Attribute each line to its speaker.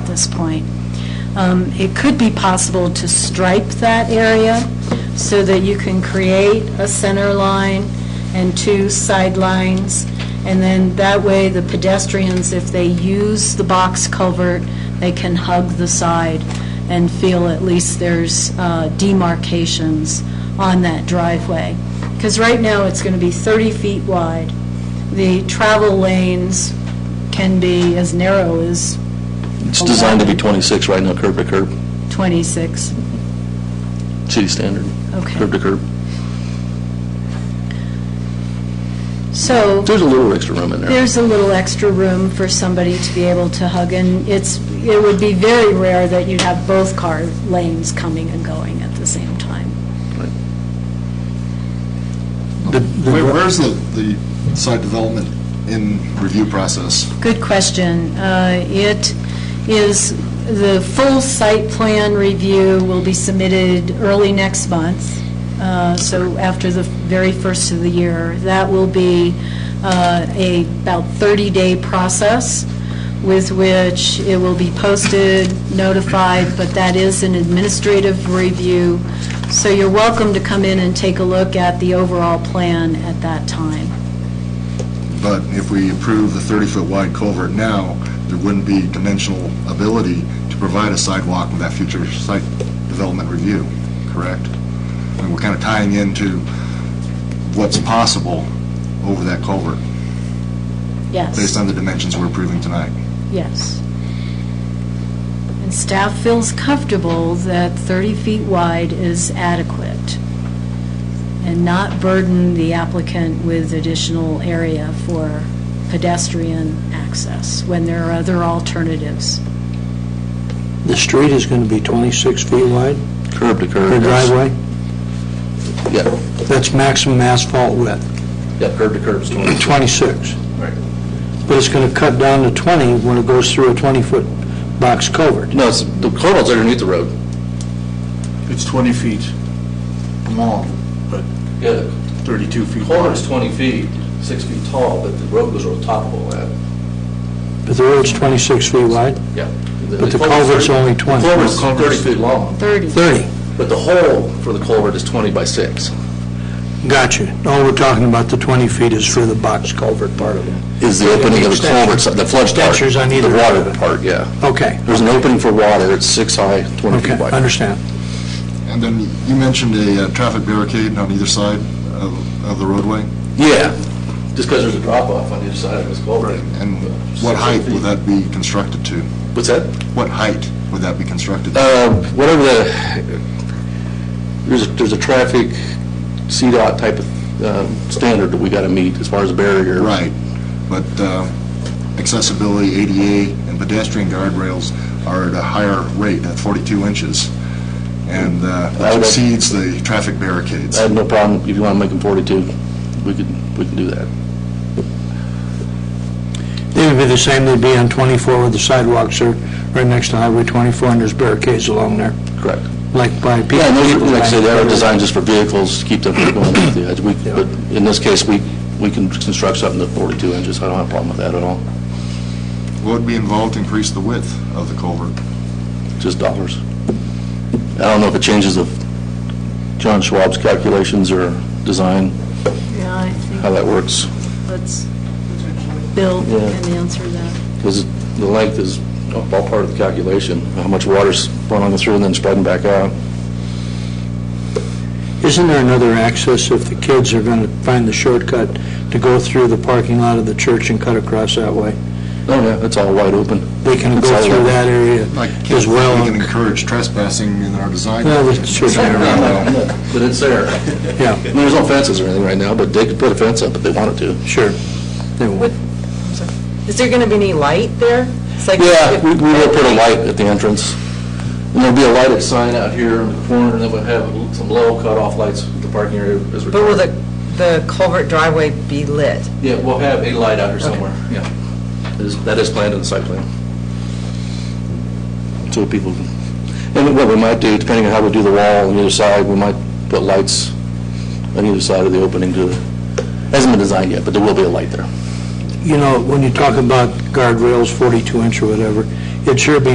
Speaker 1: this point. Um, It could be possible to stripe that area so that you can create a center line and two sidelines, and then that way the pedestrians, if they use the box culvert, they can hug the side and feel at least there's uh, demarcations on that driveway. Because right now, it's going to be 30 feet wide. The travel lanes can be as narrow as
Speaker 2: It's designed to be 26 right now, curb to curb,
Speaker 1: 26.
Speaker 2: city standard.
Speaker 1: Okay.
Speaker 2: Curb to curb.
Speaker 1: So
Speaker 2: There's a little extra room in there.
Speaker 1: there's a little extra room for somebody to be able to hug, and it's, it would be very rare that you'd have both car lanes coming and going at the same time.
Speaker 3: Where- Where's the, the site development in review process?
Speaker 1: Good question. Uh, It is, the full site plan review will be submitted early next month, uh, so after the very first of the year. That will be uh, a about 30-day process with which it will be posted, notified, but that is an administrative review. So you're welcome to come in and take a look at the overall plan at that time.
Speaker 3: But if we approve the 30-foot wide culvert now, there wouldn't be dimensional ability to provide a sidewalk in that future site development review, correct? And we're kind of tying into what's possible over that culvert,
Speaker 1: Yes.
Speaker 3: based on the dimensions we're approving tonight.
Speaker 1: Yes. And staff feels comfortable that 30 feet wide is adequate and not burden the applicant with additional area for pedestrian access when there are other alternatives.
Speaker 4: The street is going to be 26 feet wide
Speaker 2: Curb to curb.
Speaker 4: per
Speaker 2: yes.
Speaker 4: driveway?
Speaker 2: Yeah,
Speaker 4: That's maximum asphalt width,
Speaker 2: yeah, curb to curb is 26.
Speaker 4: 26.
Speaker 2: Right.
Speaker 4: But it's going to cut down to 20 when it goes through a 20-foot box culvert.
Speaker 2: No, it's, the culvert's underneath the road.
Speaker 5: It's 20 feet long, but
Speaker 2: Yeah,
Speaker 5: 32
Speaker 2: the
Speaker 5: feet
Speaker 2: culvert's
Speaker 5: wide.
Speaker 2: 20 feet, 6 feet tall, but the road goes over top of all that.
Speaker 4: But the road's 26 feet wide,
Speaker 2: Yeah.
Speaker 4: But the culvert's only 20.
Speaker 2: The culvert's
Speaker 5: No, culvert's-
Speaker 2: 30 feet long,
Speaker 1: 30.
Speaker 4: 30.
Speaker 2: but the hole for the culvert is 20 by 6.
Speaker 4: Gotcha. All we're talking about, the 20 feet, is for the box culvert part of it.
Speaker 2: Is the opening of the
Speaker 4: Extension.
Speaker 2: culvert, the flush part.
Speaker 4: Extensions on either
Speaker 2: The water
Speaker 4: side.
Speaker 2: part, yeah.
Speaker 4: Okay,
Speaker 2: There's an opening for water, it's six high, 20
Speaker 4: okay,
Speaker 2: feet wide.
Speaker 4: understand.
Speaker 3: And then you mentioned a uh, traffic barricade on either side of, of the roadway,
Speaker 2: Yeah, just because there's a drop-off on either side of this culvert.
Speaker 3: and what height would that be constructed to?
Speaker 2: What's that?
Speaker 3: What height would that be constructed? to?
Speaker 2: Uh, Whatever the, there's, a- there's a traffic CDOT type of um, standard that we got to meet as far as barrier.
Speaker 3: Right, but uh, accessibility, ADA, and pedestrian guardrails are at a higher rate, at 42 inches, and uh,
Speaker 2: I
Speaker 3: that
Speaker 2: would-
Speaker 3: exceeds the traffic barricades.
Speaker 2: I have no problem, if you want to make them 42, we can, we can do that.
Speaker 4: They would be the same, they'd be on 24 where the sidewalks are right next to Highway 24, and there's barricades along there,
Speaker 2: Correct.
Speaker 4: like by people.
Speaker 2: Yeah, and those, are- like I said, that are designed just for vehicles, to keep them from going off the edge. We- But in this case, we, we can construct something that's 42 inches, I don't have a problem with that at all,
Speaker 3: What would be involved to increase the width of the culvert?
Speaker 2: just dollars. I don't know if it changes the John Schwab's calculations or design,
Speaker 1: Yeah, I
Speaker 2: how
Speaker 1: think
Speaker 2: that works.
Speaker 1: let's, Bill
Speaker 2: Yeah.
Speaker 1: can answer that.
Speaker 2: Because the length is all part of the calculation, how much water's running through and then spreading back out.
Speaker 4: Isn't there another access if the kids are going to find the shortcut to go through the parking lot of the church and cut across that way?
Speaker 2: Oh, yeah, it's all wide open.
Speaker 4: They can
Speaker 2: It's
Speaker 4: go
Speaker 2: all
Speaker 4: through
Speaker 2: open.
Speaker 4: that area
Speaker 3: Like,
Speaker 4: as
Speaker 3: We can
Speaker 4: well,
Speaker 3: encourage trespassing in our design.
Speaker 4: Well, that's true.
Speaker 3: Turn around, well,
Speaker 2: But it's there. I
Speaker 4: yeah,
Speaker 2: mean, there's no fences or anything right now, but they could put a fence up if they wanted to.
Speaker 4: sure. They will.
Speaker 6: Is there going to be any light there? It's like-
Speaker 2: Yeah, we we will put a light at the entrance. And there'll be a lighted sign out here in the corner, and then we'll have some low cutoff lights, the parking area is
Speaker 6: But will
Speaker 2: required.
Speaker 6: the, the culvert driveway be lit?
Speaker 2: Yeah, we'll have a light out here somewhere, yeah. That is- That is planned in the site plan. So people, can- and what we might do, depending on how we do the wall on either side, we might put lights on either side of the opening to, hasn't been designed yet, but there will be a light there.
Speaker 4: You know, when you talk about guardrails, 42 inch or whatever, it sure be